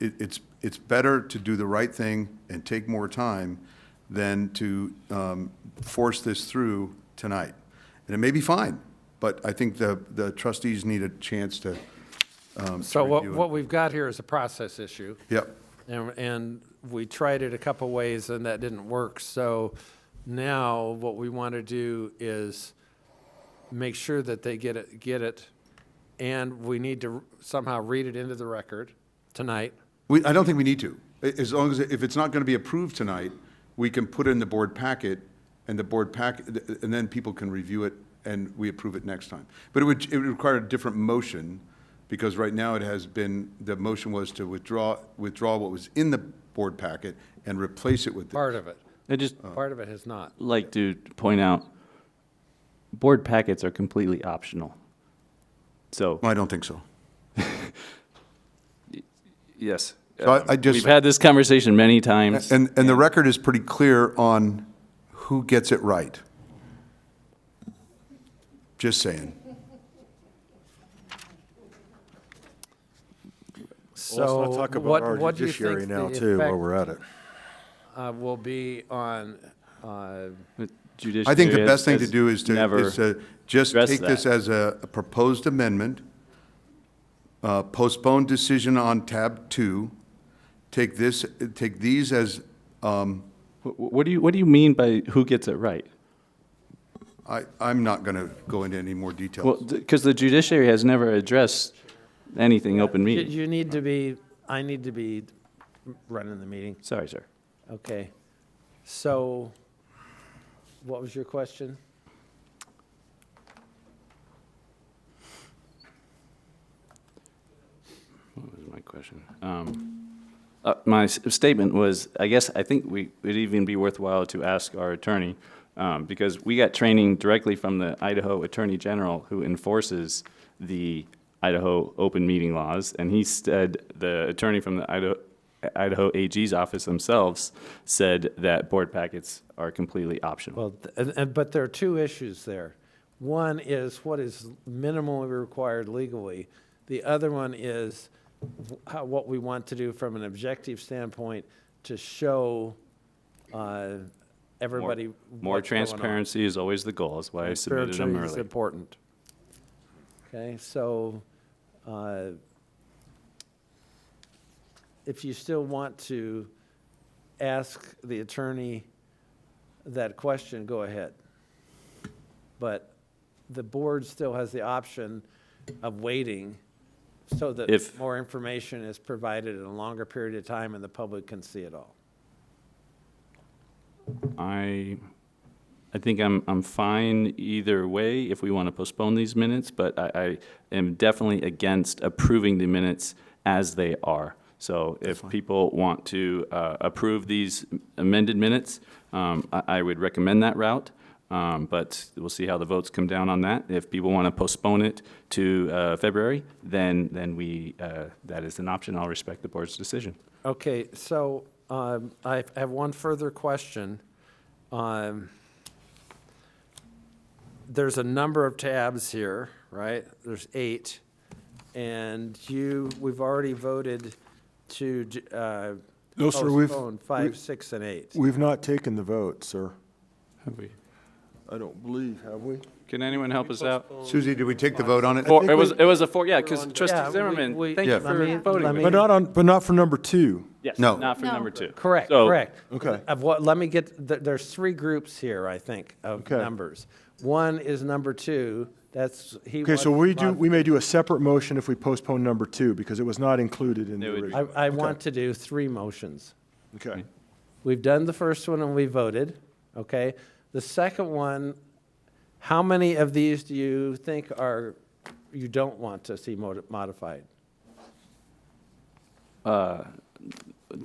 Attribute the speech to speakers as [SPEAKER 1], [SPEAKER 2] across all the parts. [SPEAKER 1] it, it's, it's better to do the right thing and take more time than to um, force this through tonight. And it may be fine, but I think the, the trustees need a chance to,
[SPEAKER 2] So what,
[SPEAKER 1] review it.
[SPEAKER 2] what we've got here is a process issue.
[SPEAKER 1] yep,
[SPEAKER 2] And, and we tried it a couple ways and that didn't work. So now what we want to do is make sure that they get it, get it. And we need to somehow read it into the record tonight.
[SPEAKER 1] We, I don't think we need to. A- As long as, if it's not going to be approved tonight, we can put it in the board packet, and the board pack, and then people can review it, and we approve it next time. But it would, it would require a different motion, because right now it has been, the motion was to withdraw, withdraw what was in the board packet and replace it with. the-
[SPEAKER 2] Part of it,
[SPEAKER 3] I just
[SPEAKER 2] part of it has not.
[SPEAKER 3] like to point out, board packets are completely optional. So,
[SPEAKER 1] I don't think so.
[SPEAKER 3] yes.
[SPEAKER 1] So I-
[SPEAKER 3] um,
[SPEAKER 1] I just-
[SPEAKER 3] We've had this conversation many times.
[SPEAKER 1] And, and the record is pretty clear on who gets it right. Just saying.
[SPEAKER 4] Well,
[SPEAKER 2] So
[SPEAKER 4] Let's not talk about
[SPEAKER 2] what,
[SPEAKER 4] our
[SPEAKER 2] what do you think
[SPEAKER 4] judiciary now,
[SPEAKER 2] the
[SPEAKER 4] too, while we're
[SPEAKER 2] effect
[SPEAKER 4] at it.
[SPEAKER 2] uh, will be on, uh,
[SPEAKER 1] I think the best thing to do is to, is to just
[SPEAKER 3] addressed
[SPEAKER 1] take this
[SPEAKER 3] that.
[SPEAKER 1] as a a proposed amendment, uh, postpone decision on tab two, take this, take these as, um,
[SPEAKER 3] What do you, what do you mean by who gets it right?
[SPEAKER 1] I, I'm not going to go into any more
[SPEAKER 3] Well,
[SPEAKER 1] details.
[SPEAKER 3] because the judiciary has never addressed anything open
[SPEAKER 2] you-
[SPEAKER 3] meeting.
[SPEAKER 2] you need to be, I need to be running the meeting.
[SPEAKER 3] Sorry, sir.
[SPEAKER 2] Okay. So what was your question?
[SPEAKER 3] What was my question? Um, uh, My s- statement was, I guess, I think we, it'd even be worthwhile to ask our attorney, um, because we got training directly from the Idaho Attorney General, who enforces the Idaho open meeting laws, and he said, the attorney from the Idaho, Idaho AG's office themselves said that board packets are completely optional.
[SPEAKER 2] Well, th- and, and, but there are two issues there. One is what is minimally required legally. The other one is wh- how, what we want to do from an objective standpoint to show, uh, everybody.
[SPEAKER 3] More
[SPEAKER 2] what's going on.
[SPEAKER 3] transparency is always the goal, is why I submitted them
[SPEAKER 2] Transparency is
[SPEAKER 3] early.
[SPEAKER 2] important. Okay, so, uh, if you still want to ask the attorney that question, go ahead. But the board still has the option of waiting so that
[SPEAKER 3] If-
[SPEAKER 2] more information is provided in a longer period of time and the public can see it all.
[SPEAKER 3] I, I think I'm, I'm fine either way if we want to postpone these minutes, but I, I am definitely against approving the minutes as they are. So if people want to uh, approve these amended minutes, um, I, I would recommend that route. Um, But we'll see how the votes come down on that. If people want to postpone it to uh, February, then, then we, uh, that is an option. I'll respect the board's decision.
[SPEAKER 2] Okay, so um, I have one further question. Um, There's a number of tabs here, right? There's eight. And you, we've already voted to j- uh,
[SPEAKER 4] No, sir, we've-
[SPEAKER 2] postpone five, six, and eight.
[SPEAKER 4] We've not taken the vote, sir.
[SPEAKER 3] Have we-
[SPEAKER 4] I don't believe, have we?
[SPEAKER 3] Can anyone help us out?
[SPEAKER 1] Susie, did we take the vote on it?
[SPEAKER 3] Four,
[SPEAKER 4] think
[SPEAKER 3] it was,
[SPEAKER 4] we-
[SPEAKER 3] it was a four, yeah, because
[SPEAKER 2] Yeah,
[SPEAKER 3] trustee
[SPEAKER 2] we-
[SPEAKER 3] Zimmerman,
[SPEAKER 2] we-
[SPEAKER 3] thank
[SPEAKER 1] Yeah.
[SPEAKER 3] you
[SPEAKER 1] let
[SPEAKER 2] me-
[SPEAKER 3] for voting with
[SPEAKER 2] let me- uh,
[SPEAKER 3] me.
[SPEAKER 4] But not on, but not for number two.
[SPEAKER 3] Yes,
[SPEAKER 1] No.
[SPEAKER 3] Not for
[SPEAKER 5] No.
[SPEAKER 3] number two.
[SPEAKER 2] Correct,
[SPEAKER 3] So-
[SPEAKER 2] correct.
[SPEAKER 4] Okay.
[SPEAKER 2] Of what, let me get, th- there's three groups here, I think, of
[SPEAKER 4] Okay.
[SPEAKER 2] numbers. One is number two, that's, he
[SPEAKER 4] Okay, so
[SPEAKER 2] wants
[SPEAKER 4] we do,
[SPEAKER 2] mod-
[SPEAKER 4] we may do a separate motion if we postpone number two, because it was not included in the
[SPEAKER 3] It would-
[SPEAKER 4] original.
[SPEAKER 2] I, I want to do three motions.
[SPEAKER 4] Okay.
[SPEAKER 2] We've done the first one and we voted, okay? The second one, how many of these do you think are, you don't want to see modi- modified?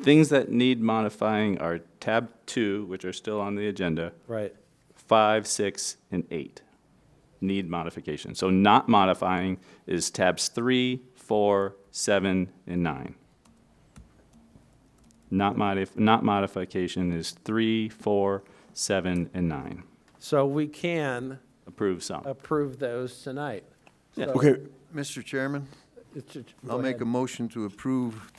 [SPEAKER 3] Things that need modifying are tab two, which are still on the agenda,
[SPEAKER 2] Right,
[SPEAKER 3] five, six, and eight need modification. So not modifying is tabs three, four, seven, and nine. Not modif, not modification is three, four, seven, and nine.
[SPEAKER 2] so we can
[SPEAKER 3] Approve some.
[SPEAKER 2] approve those tonight.
[SPEAKER 3] Yeah.
[SPEAKER 2] So
[SPEAKER 4] Okay,
[SPEAKER 6] Mr. Chairman,
[SPEAKER 2] it's a- go
[SPEAKER 6] I'll
[SPEAKER 2] ahead.
[SPEAKER 6] make a motion to approve